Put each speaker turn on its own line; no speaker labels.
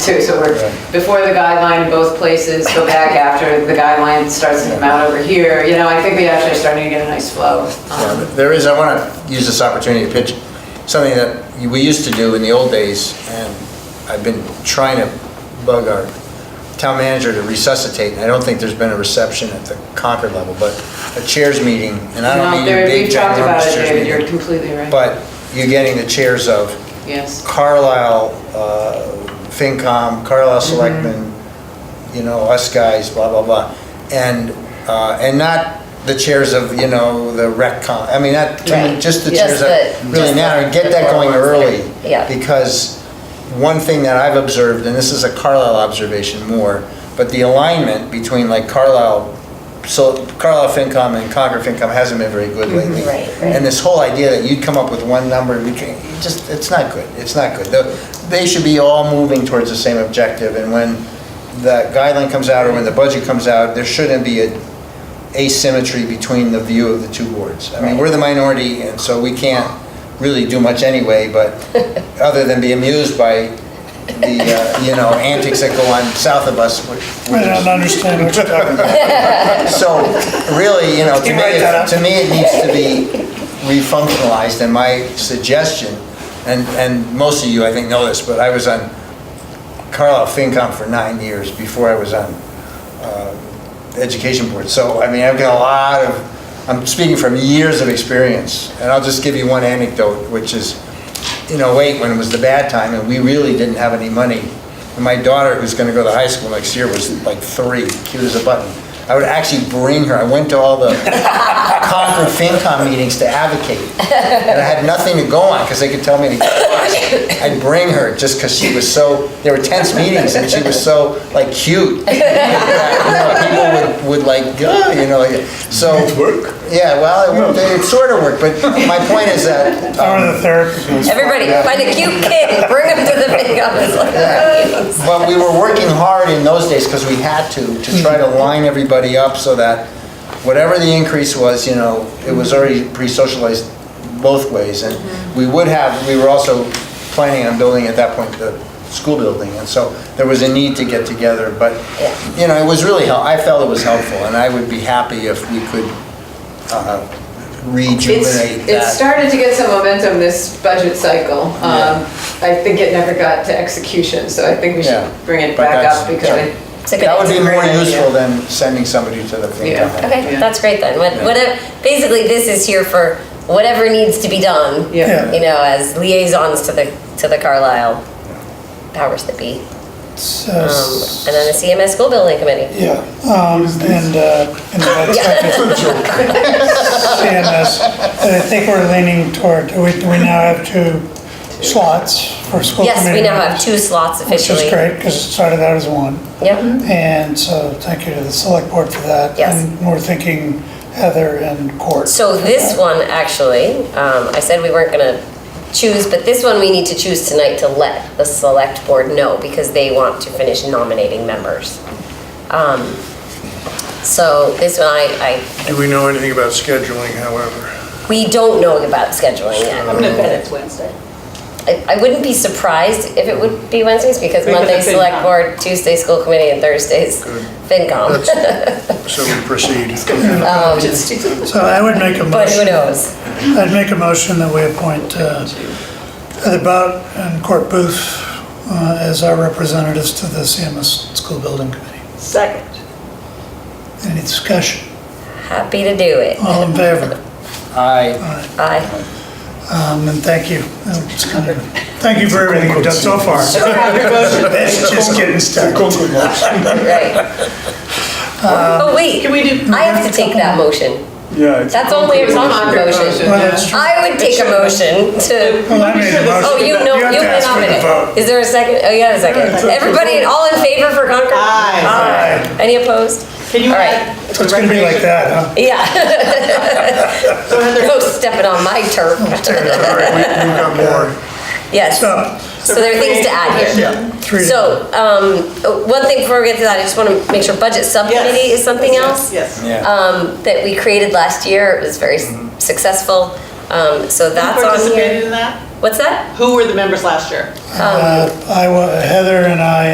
too, so we're before the guideline in both places, go back after the guideline starts to come out over here. You know, I think we actually are starting to get a nice flow.
Yeah,
Um,
but There is, I want to use this opportunity to pitch something that we used to do in the old days, and I've been trying to bug our town manager to resuscitate, and I don't think there's been a reception at the Concord level, but a chairs meeting, and I
No,
don't mean
there-
a big
We've talked about
ginormous
it,
chairs
David, you're
meeting,
completely right.
but you're getting the chairs of
Yes,
Carlisle, uh, FinCom, Carlisle
Mm-hmm.
Selectmen, you know, us guys, blah, blah, blah. And, uh, and not the chairs of, you know, the RecCom, I mean, not, to me,
Right.
just the
Just
chairs
the-
that really
just
matter,
the-
and get
the
that
core
going
ones that
early.
are- yeah.
Because one thing that I've observed, and this is a Carlisle observation more, but the alignment between like Carlisle, so Carlisle FinCom and Concord FinCom hasn't been very good lately.
Mm-hmm. Right, right.
And this whole idea that you'd come up with one number, you can- you just, it's not good, it's not good. The- They should be all moving towards the same objective, and when the guideline comes out or when the budget comes out, there shouldn't be a asymmetry between the view of the two boards. I mean, we're the minority, and so we can't really do much anyway, but, other than be amused by the, uh, you know, antics that go on south of us, which
I don't understand what you're talking about.
so really, you know, to
Can you
me,
write that
it-
up?
to me, it needs to be refunctionalized, and my suggestion, and, and most of you, I think, know this, but I was on Carlisle FinCom for nine years before I was on uh, Education Board. So, I mean, I've got a lot of, I'm speaking from years of experience, and I'll just give you one anecdote, which is, in '08, when it was the bad time, and we really didn't have any money. And my daughter, who's gonna go to high school next year, was like three, cute as a button. I would actually bring her, I went to all the Concord FinCom meetings to advocate. And I had nothing to go on, because they could tell me to get lost. I'd bring her, just because she was so, there were tense meetings, and she was so, like, cute. that, you know, People would, would like, "Ugh," you know, like- so. It worked? Yeah, well, it worked- it sort of worked, but my point is that. um,
Or the therapy goes.
Everybody,
Yeah.
find a cute kid, bring him to the big office. Like,
But we were working hard in those days because we had to, to try to
Mm-hmm.
line everybody up so that whatever the increase was, you know, it
Mm-hmm.
was already pre-socialized both ways. And we would have, we were also planning on building at that point the school building. And so there was a need to get together, but, you know, it was really, hel- I felt it was helpful. And I would be happy if we could uh,
it's,
rejuvenate
it
that.
started to get some momentum this budget cycle.
Yeah.
Um, I think it never got to execution, so I think we
Yeah.
should bring it
But
back
that's-
up because
yeah.
I
it's a good-
That would
it's a
be
great
more
idea.
useful than sending somebody to the thing.
Yeah.
Okay,
Yeah.
that's great then. What,
Yeah.
what, basically, this is here for whatever needs to be done.
Yeah.
You know, as liaisons to the, to the Carlisle powers that be.
It's,
Um,
uh,
And then the CMS School Building Committee.
Yeah, um, and, uh, and that's CMS. And I think we're leaning toward, do we, do we now have two slots for school committee?
Yes, we now have
members?
two slots
Which
officially.
is great, because it started out as one. Mm-hmm.
Yep,
And so thank you to the select board for that.
Yes.
And we're thinking Heather and Court.
so this one, actually, um, I said we weren't gonna choose, but this one we need to choose tonight to let the select board know, because they want to finish nominating members. Um, So this one, I, I
Do we know anything about scheduling, however?
We don't know about scheduling yet.
I'm gonna bet it's Wednesday.
I, I wouldn't be surprised if it would be Wednesdays because
Because
Monday
of FinCom.
Select Board, Tuesday School Committee, and Thursdays FinCom.
That's- So we proceed.
So I would make a motion.
Um, But who knows?
I'd make a motion that we appoint uh, Heather Bout and Court Booth uh, as our representatives to the CMS School Building Committee.
Second.
Any discussion?
Happy to do it.
All in favor?
I
Aye.
Um, And thank you. Uh, it's kind of- Thank you for everything you've done so far. It's just getting started.
right. oh wait,
Um, Can we do?
I have to take that motion.
Yeah, it's-
That's only a
It's on
Concord motion.
Well, that's true.
I would take a motion to.
Well, I made a
Oh,
motion.
you know,
You have
you
to
can
ask for the
nominate.
vote.
Is there a second? Oh, you have a second. Everybody, all in favor for Concord?
Aye.
Aye. Any opposed?
Can you
All right.
add?
So it's going to be like that, huh?
Yeah,
So Heather,
no stepping on my turf.
Oh,
All right, we- we've got more.
Yes.
So,
So there are things to add here.
three. to-
So, um, one thing before we get to that, I just want to make sure budget subcommittee
Yes.
is something else.
Yes.
Yeah.
Um, that we created last year, it was very s- successful, um, so that's
Who
on
participated
here.
in that?
What's that?
Who were the members last year?
uh, I, wa- Heather and I